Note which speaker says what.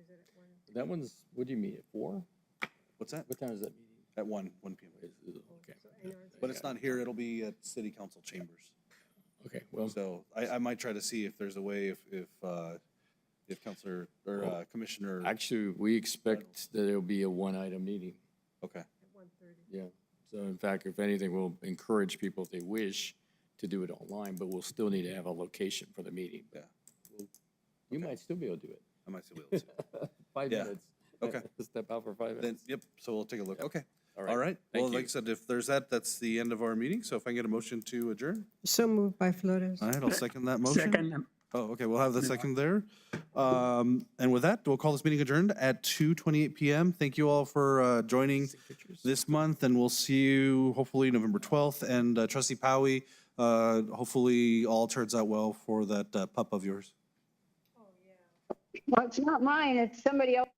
Speaker 1: is it at one?
Speaker 2: That one's, what do you mean, at four?
Speaker 3: What's that?
Speaker 2: What time is that meeting?
Speaker 3: At one, one PM.
Speaker 2: Is- is- Okay,
Speaker 1: So, and ours
Speaker 3: But
Speaker 1: is-
Speaker 3: it's not here, it'll be at city council chambers.
Speaker 2: okay, well,
Speaker 3: So I, I might try to see if there's a way if, if, uh, if Counselor or uh, Commissioner,
Speaker 2: actually, we expect that it'll be a one-item meeting,
Speaker 3: okay,
Speaker 1: At one thirty.
Speaker 2: yeah. So in fact, if anything, we'll encourage people if they wish to do it online, but we'll still need to have a location for the meeting.
Speaker 3: yeah.
Speaker 2: You might still be able to do it.
Speaker 3: I might see what else.
Speaker 2: Five
Speaker 3: Yeah.
Speaker 2: minutes.
Speaker 3: Okay.
Speaker 2: Step out for five
Speaker 3: Then,
Speaker 2: minutes.
Speaker 3: yep, so we'll take a look. Okay.
Speaker 2: All right.
Speaker 3: All right.
Speaker 2: Thank
Speaker 3: Well, like I
Speaker 2: you.
Speaker 3: said, if there's that, that's the end of our meeting. So if I can get a motion to adjourn?
Speaker 1: So moved by Flores.
Speaker 3: All right, I'll second that motion.
Speaker 4: Second,
Speaker 3: Oh, okay, we'll have the second there. Um, and with that, we'll call this meeting adjourned at two twenty-eight PM. Thank you all for, uh, joining this month, and we'll see you hopefully November twelfth. And uh, trustee Powie, uh, hopefully all turns out well for that uh, pup of yours.
Speaker 5: Well, it's not mine, it's somebody else.